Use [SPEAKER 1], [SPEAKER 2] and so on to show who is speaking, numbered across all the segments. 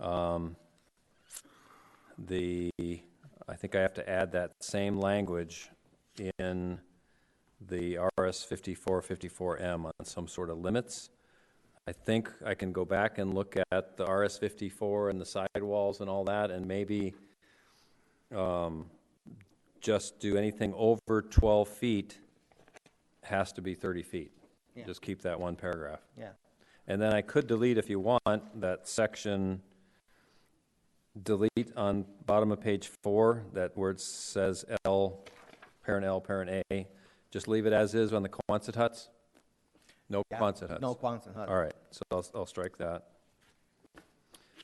[SPEAKER 1] Um, The, I think I have to add that same language in the RS 5454M on some sort of limits. I think I can go back and look at the RS 54 and the sidewalls and all that, and maybe um, just do anything over 12 feet has to be 30 feet.
[SPEAKER 2] Yeah.
[SPEAKER 1] Just keep that one paragraph.
[SPEAKER 2] Yeah,
[SPEAKER 1] And then I could delete, if you want, that section, delete on bottom of page four, that word says L, parent L, parent A. Just leave it as is on the Quonset huts? No
[SPEAKER 2] Yeah,
[SPEAKER 1] Quonset huts?
[SPEAKER 2] no Quonset hut.
[SPEAKER 1] All right, so I'll, I'll strike that.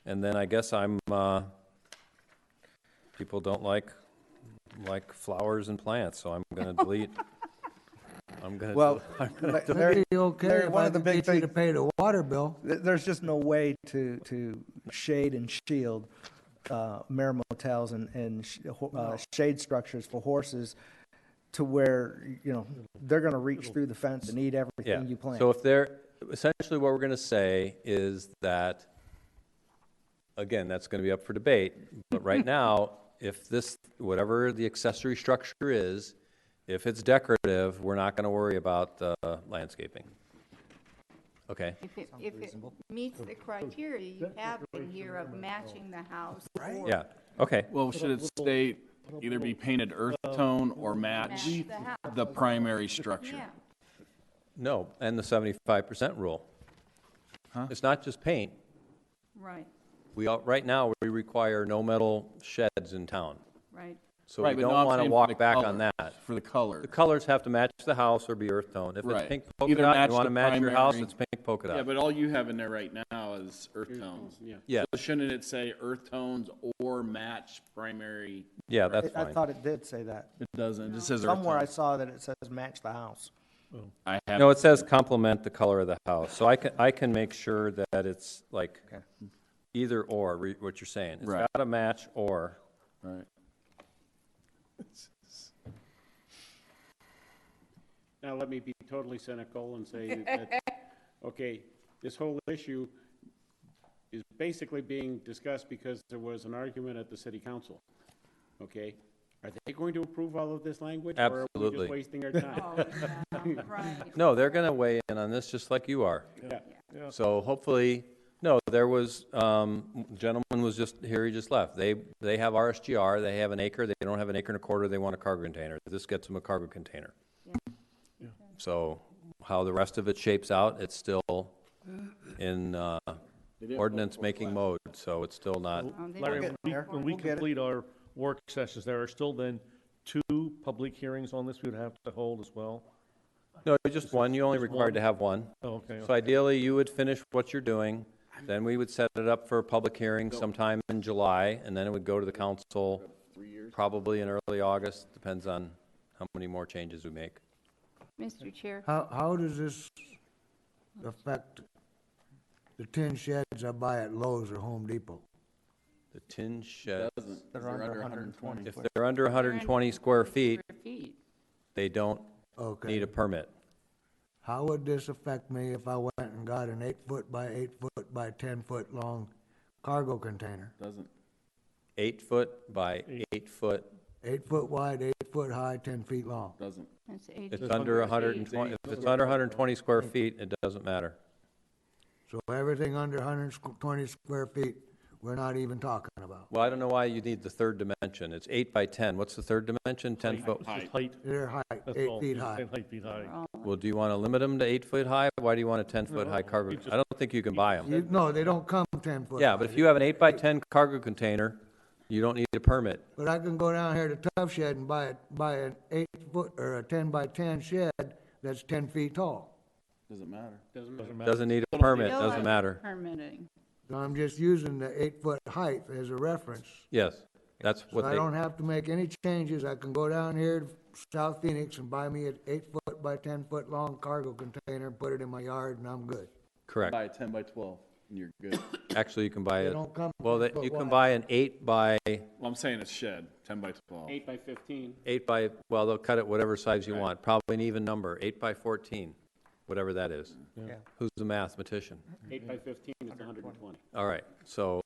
[SPEAKER 1] And then I guess I'm, uh, people don't like, like flowers and plants, so I'm gonna delete. I'm gonna.
[SPEAKER 3] Well,
[SPEAKER 1] I'm gonna
[SPEAKER 3] But
[SPEAKER 1] delete-
[SPEAKER 3] that'd be okay
[SPEAKER 4] Larry,
[SPEAKER 3] if
[SPEAKER 4] one
[SPEAKER 3] I
[SPEAKER 4] of the
[SPEAKER 3] could
[SPEAKER 4] big
[SPEAKER 3] get you to
[SPEAKER 4] things-
[SPEAKER 3] pay the water bill.
[SPEAKER 4] Th- There's just no way to, to shade and shield uh, mare motels and, and sh- ho- uh, shade structures for horses to where, you know, they're going to reach through the fence and eat
[SPEAKER 1] Yeah.
[SPEAKER 4] everything you plant.
[SPEAKER 1] So if they're, essentially what we're going to say is that, again, that's going to be up for debate, but right now, if this, whatever the accessory structure is, if it's decorative, we're not going to worry about the landscaping. Okay,
[SPEAKER 5] If it, if it meets the criteria you have in here of matching the house or
[SPEAKER 1] yeah, okay,
[SPEAKER 6] Well, should it state either be painted earth tone or match
[SPEAKER 5] match the house,
[SPEAKER 6] the primary structure?
[SPEAKER 5] yeah.
[SPEAKER 1] no, and the seventy-five percent rule. It's not just paint,
[SPEAKER 5] Right,
[SPEAKER 1] we, all- right now, we require no metal sheds in town,
[SPEAKER 5] right.
[SPEAKER 1] so we
[SPEAKER 6] Right, but no,
[SPEAKER 1] don't
[SPEAKER 6] I'm
[SPEAKER 1] want to
[SPEAKER 6] saying for the
[SPEAKER 1] walk back on
[SPEAKER 6] color,
[SPEAKER 1] that.
[SPEAKER 6] For the color.
[SPEAKER 1] The colors have to match the house or be earth tone. If it's
[SPEAKER 6] Right.
[SPEAKER 1] pink polka
[SPEAKER 6] Either
[SPEAKER 1] dot,
[SPEAKER 6] match
[SPEAKER 1] you want to
[SPEAKER 6] the
[SPEAKER 1] match your house,
[SPEAKER 6] primary-
[SPEAKER 1] it's pink polka
[SPEAKER 6] Yeah,
[SPEAKER 1] dot.
[SPEAKER 6] but all you have in there right now is earth tones.
[SPEAKER 1] Yeah.
[SPEAKER 6] So shouldn't it say earth tones or match primary?
[SPEAKER 1] Yeah, that's
[SPEAKER 4] I I
[SPEAKER 1] fine.
[SPEAKER 4] thought it did say that.
[SPEAKER 6] It doesn't, it just says earth
[SPEAKER 4] Somewhere I
[SPEAKER 6] tones.
[SPEAKER 4] saw that it says match the house.
[SPEAKER 6] I have,
[SPEAKER 1] No, it says complement the color of the house. So I can, I can make sure that it's like either or, re- what you're saying. It's
[SPEAKER 6] Right.
[SPEAKER 1] got to match or.
[SPEAKER 6] right.
[SPEAKER 7] Now, let me be totally cynical and say that, okay, this whole issue is basically being discussed because there was an argument at the city council, okay? Are they going to approve all of this language? Or are we
[SPEAKER 1] Absolutely.
[SPEAKER 7] just wasting our time?
[SPEAKER 5] Oh, yeah, right.
[SPEAKER 1] No, they're going to weigh in on this just like you are.
[SPEAKER 7] Yeah.
[SPEAKER 1] So hopefully, no, there was, um, gentleman was just here, he just left. They, they have RSGR, they have an acre, they don't have an acre and a quarter, they want a cargo container. This gets them a cargo container. So how the rest of it shapes out, it's still in, uh, ordinance-making mode, so it's still not,
[SPEAKER 5] Um, they
[SPEAKER 8] Larry,
[SPEAKER 5] don't-
[SPEAKER 8] when we- when we complete our work sessions, there are still then two public hearings on this we would have to hold as well?
[SPEAKER 1] no, just one, you only required to have one.
[SPEAKER 8] Oh, Okay.
[SPEAKER 1] So ideally, you would finish what you're doing, then we would set it up for a public hearing sometime in July, and then it would go to the council probably in early August, depends on how many more changes we make.
[SPEAKER 5] Mr. Chair,
[SPEAKER 3] How, how does this affect the tin sheds I buy at Lowe's or Home Depot?
[SPEAKER 1] The tin shed,
[SPEAKER 4] They're under 120.
[SPEAKER 1] if they're under 120 square feet,
[SPEAKER 5] feet,
[SPEAKER 1] they don't need
[SPEAKER 3] Okay.
[SPEAKER 1] a permit.
[SPEAKER 3] How would this affect me if I went and got an eight-foot by eight-foot by ten-foot long cargo container?
[SPEAKER 6] Doesn't.
[SPEAKER 1] Eight foot by eight foot,
[SPEAKER 3] Eight-foot wide, eight-foot high, ten feet long.
[SPEAKER 6] Doesn't.
[SPEAKER 5] that's eight.
[SPEAKER 1] it's under 120, if it's under 120 square feet, it doesn't matter.
[SPEAKER 3] So everything under hundred twenty square feet, we're not even talking about.
[SPEAKER 1] Well, I don't know why you need the third dimension, it's eight by 10, what's the third dimension? 10 foot?
[SPEAKER 8] It's just height,
[SPEAKER 3] They're high,
[SPEAKER 8] that's
[SPEAKER 3] eight
[SPEAKER 8] all.
[SPEAKER 3] feet
[SPEAKER 8] It's
[SPEAKER 3] high.
[SPEAKER 8] ten Height feet high.
[SPEAKER 1] Well, do you want to limit them to eight foot high? Why do you want a ten foot high cargo? I don't think you can buy them.
[SPEAKER 3] You, no, they don't come ten foot.
[SPEAKER 1] Yeah, but if you have an eight by ten cargo container, you don't need a permit.
[SPEAKER 3] But I can go down here to Tough Shed and buy, a- buy an eight foot or a ten by ten shed that's ten feet tall.
[SPEAKER 6] Doesn't matter.
[SPEAKER 7] Doesn't matter.
[SPEAKER 1] Doesn't need a permit,
[SPEAKER 5] No,
[SPEAKER 1] doesn't
[SPEAKER 5] I'm
[SPEAKER 1] matter.
[SPEAKER 5] Permitting.
[SPEAKER 3] So I'm just using the eight foot height as a reference.
[SPEAKER 1] Yes, that's
[SPEAKER 3] So
[SPEAKER 1] what
[SPEAKER 3] I don't
[SPEAKER 1] they,
[SPEAKER 3] have to make any changes. I can go down here to South Phoenix and buy me an eight foot by ten foot long cargo container, and put it in my yard and I'm good.
[SPEAKER 1] correct.
[SPEAKER 6] a ten by twelve and you're good.
[SPEAKER 1] Actually, you can buy
[SPEAKER 3] They
[SPEAKER 1] it,
[SPEAKER 3] don't come
[SPEAKER 1] well,
[SPEAKER 3] 10
[SPEAKER 1] that-
[SPEAKER 3] foot
[SPEAKER 1] you can
[SPEAKER 3] wide.
[SPEAKER 1] buy an eight by,
[SPEAKER 6] Well, I'm saying it's shed, ten by twelve.
[SPEAKER 7] Eight by fifteen,
[SPEAKER 1] eight by, well, they'll cut it whatever size you want, probably an even number, eight by fourteen, whatever that is.
[SPEAKER 4] Yeah.
[SPEAKER 1] Who's the mathematician?
[SPEAKER 7] eight by fifteen is hundred and twenty.
[SPEAKER 1] All right, so